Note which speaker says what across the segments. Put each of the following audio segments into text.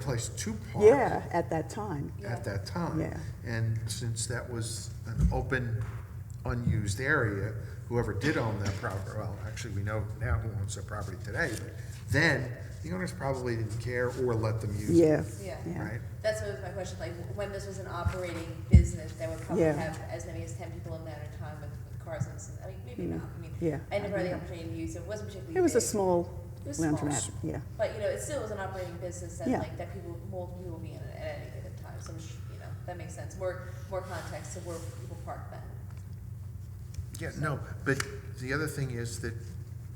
Speaker 1: place to park.
Speaker 2: Yeah, at that time.
Speaker 1: At that time.
Speaker 2: Yeah.
Speaker 1: And since that was an open, unused area, whoever did own that property, well, actually, we know now who owns that property today, but then, the owners probably didn't care or let them use it,
Speaker 2: Yeah.
Speaker 3: Yeah.
Speaker 1: right?
Speaker 3: That's what was my question, like, when this was an operating business, they would probably
Speaker 2: Yeah.
Speaker 3: have as many as ten people in that at a time with, with cars and, s- I mean, maybe
Speaker 2: Mm.
Speaker 3: not, I mean.
Speaker 2: Yeah.
Speaker 3: I never had the opportunity to use it, It wasn't particularly
Speaker 2: It was a
Speaker 3: big,
Speaker 2: small
Speaker 3: It was small.
Speaker 2: laundromat, yeah.
Speaker 3: But, you know, it still was an operating business that
Speaker 2: Yeah.
Speaker 3: like, that people, multiple people would be in it at any given time, so, I'm sh- you know, that makes sense, more, more context to where people park then.
Speaker 1: Yeah, no, but the other thing is that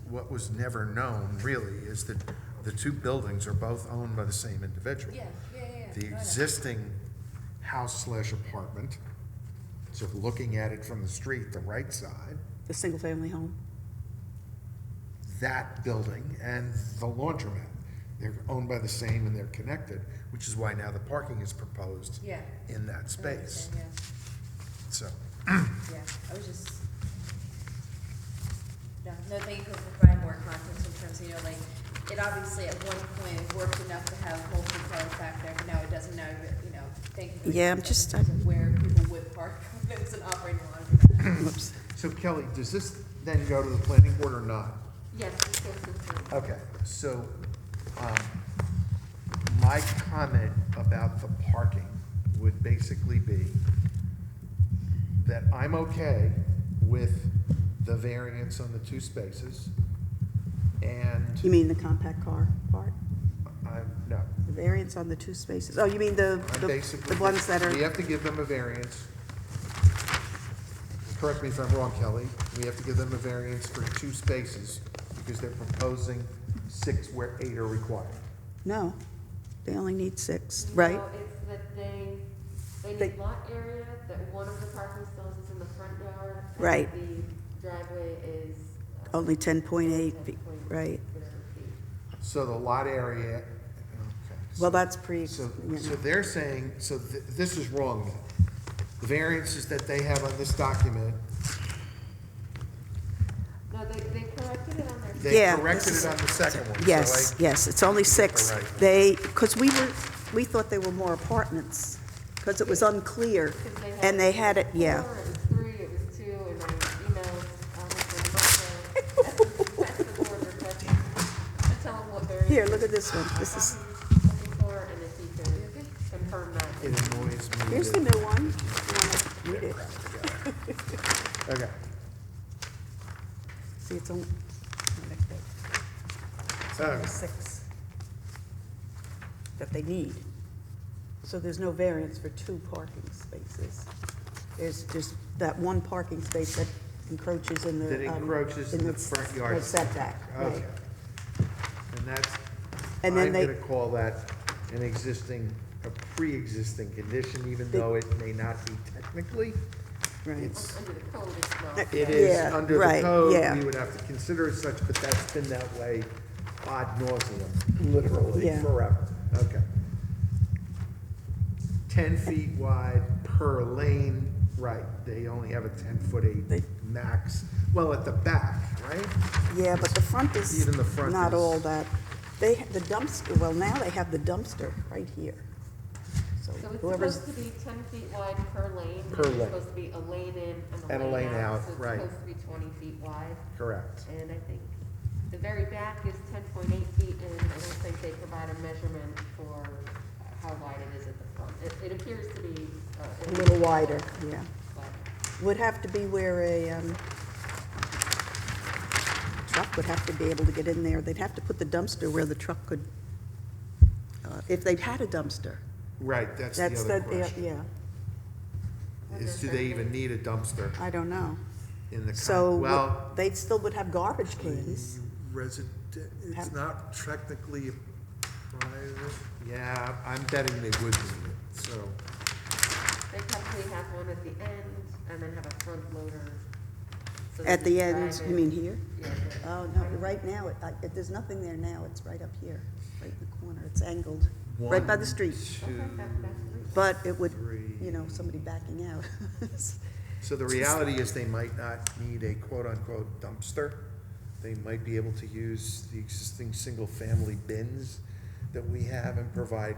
Speaker 1: what was never known, really, is that the two buildings are both owned by the same individual.
Speaker 3: Yeah, yeah, yeah, yeah.
Speaker 1: The
Speaker 3: No, I know.
Speaker 1: existing house slash apartment, so looking at it from the street, the right side,
Speaker 2: The single-family home.
Speaker 1: that building and the laundromat. They're owned by the same and they're connected, which is why now the parking is proposed
Speaker 3: Yeah.
Speaker 1: in that
Speaker 3: I know what you're
Speaker 1: space.
Speaker 3: saying,
Speaker 1: So,
Speaker 3: Yeah, yeah, I was just. No, no, thank you for providing more context in terms of, you know, like, it obviously at one point it worked enough to have whole food cars back there, but now it doesn't, now, it, you know, thank you. for the
Speaker 2: Yeah, I'm
Speaker 3: context
Speaker 2: just-
Speaker 3: in terms of Where people would park, when it's an operating lot.
Speaker 2: Whoops.
Speaker 1: so Kelly, does this then go to the planning board or not?
Speaker 3: Yes, it's still food.
Speaker 1: Okay, so, um, my comment about the parking would basically be that I'm okay with the variance on the two spaces,
Speaker 2: You
Speaker 1: and
Speaker 2: mean the compact car part?
Speaker 1: I'm, no,
Speaker 2: The variance on the two spaces? Oh, you mean the,
Speaker 1: I'm
Speaker 2: the-
Speaker 1: basically.
Speaker 2: the ones that
Speaker 1: We
Speaker 2: are,
Speaker 1: have to give them a variance. Correct me if I'm wrong, Kelly. We have to give them a variance for two spaces because they're proposing six where eight are required.
Speaker 2: no, they only need six, right?
Speaker 4: No, it's that they, they
Speaker 2: They-
Speaker 4: need lot area, that one of the parking stalls is in the front yard. and
Speaker 2: Right.
Speaker 4: The driveway is. uh,
Speaker 2: Only 10.8,
Speaker 4: 10
Speaker 2: feet,
Speaker 4: point
Speaker 2: right.
Speaker 4: whatever feet.
Speaker 1: So the lot area, okay.
Speaker 2: Well, that's pre,
Speaker 1: So,
Speaker 2: you
Speaker 1: so
Speaker 2: know,
Speaker 1: they're saying, so th- this is wrong then. The variances that they have on this document,
Speaker 4: No, they, they corrected it on their.
Speaker 1: they
Speaker 2: Yeah,
Speaker 1: corrected
Speaker 2: this
Speaker 1: it
Speaker 2: is-
Speaker 1: on the second one. so
Speaker 2: yes, yes, it's only six.
Speaker 1: Right.
Speaker 2: They, because we were, we thought they were more apartments, because it was unclear.
Speaker 4: 'cause had
Speaker 2: And they had it, yeah.
Speaker 4: Four, it was three, it was two, and I emailed, um, the board, the board requesting, to tell them what variance.
Speaker 2: Here, look at this one. This is,
Speaker 4: I'm Looking for, and if you can confirm that.
Speaker 1: It annoys me.
Speaker 2: here's the
Speaker 1: that-
Speaker 2: new one. If you wanna Read it.
Speaker 1: Okay,
Speaker 2: See, it's only, it's
Speaker 1: Okay.
Speaker 2: only six that they need. So there's no variance for two parking spaces. There's just that one parking space that encroaches in the.
Speaker 1: That
Speaker 2: um,
Speaker 1: encroaches in the
Speaker 2: s-
Speaker 1: front yard
Speaker 2: the Setback, right.
Speaker 1: okay. And that's, I'm
Speaker 2: And then
Speaker 1: gonna
Speaker 2: they,
Speaker 1: call that an existing, a pre-existing condition, even though it may not be technically.
Speaker 2: right,
Speaker 1: It's,
Speaker 4: Under the code, it's not.
Speaker 1: it is
Speaker 2: Yeah,
Speaker 1: under the
Speaker 2: right,
Speaker 1: code,
Speaker 2: yeah.
Speaker 1: we would have to consider it such, but that's been that way ad nauseum, literally
Speaker 2: Yeah.
Speaker 1: forever, okay. Ten feet wide per lane, right, they only have a ten-foot eight
Speaker 2: They-
Speaker 1: max, well, at the back, right?
Speaker 2: yeah, but the front is
Speaker 1: Even the front
Speaker 2: not
Speaker 1: is-
Speaker 2: all that. They, ha- the dumpster, well, now they have the dumpster right here. So
Speaker 4: So it's
Speaker 2: whoever's,
Speaker 4: supposed to be ten feet wide per lane.
Speaker 1: Per
Speaker 4: and
Speaker 1: lane.
Speaker 4: It's supposed to be a lane in and a lane out. so it's
Speaker 1: right.
Speaker 4: supposed to be twenty feet wide,
Speaker 1: Correct.
Speaker 4: and I think the very back is ten point eight feet, and I don't think they provide a measurement for how wide it is at the front. It, it appears to be, uh.
Speaker 2: a
Speaker 4: at
Speaker 2: little
Speaker 4: least
Speaker 2: wider, yeah.
Speaker 4: wider.
Speaker 2: would have to be where a, um, truck would have to be able to get in there. They'd have to put the dumpster where the truck could, uh, if they'd had a dumpster.
Speaker 1: Right, that's the
Speaker 2: That's the,
Speaker 1: other
Speaker 2: the-
Speaker 1: question,
Speaker 2: yeah,
Speaker 1: is do they even need a dumpster
Speaker 2: I don't know.
Speaker 1: in the,
Speaker 2: So
Speaker 1: con- well,
Speaker 2: what- they still would have garbage cans.
Speaker 1: Resident, it's
Speaker 2: Have-
Speaker 1: not technically private. Yeah, I'm betting they would need it, so.
Speaker 4: They probably have one at the end, and then have a front loader. so
Speaker 2: At
Speaker 4: they
Speaker 2: the
Speaker 4: can
Speaker 2: end,
Speaker 4: drive
Speaker 2: you
Speaker 4: it.
Speaker 2: mean here?
Speaker 4: Yeah. the-
Speaker 2: Oh, no, right now, it- I- it- there's nothing there now. It's right up here, right in the corner. It's angled, right by the
Speaker 1: One,
Speaker 2: street.
Speaker 4: Okay,
Speaker 1: two,
Speaker 4: that- that's great.
Speaker 2: But it would,
Speaker 1: three.
Speaker 2: you know, somebody backing out.
Speaker 1: So the reality is they might not need a quote-unquote dumpster. They might be able to use the existing single-family bins that we have and provide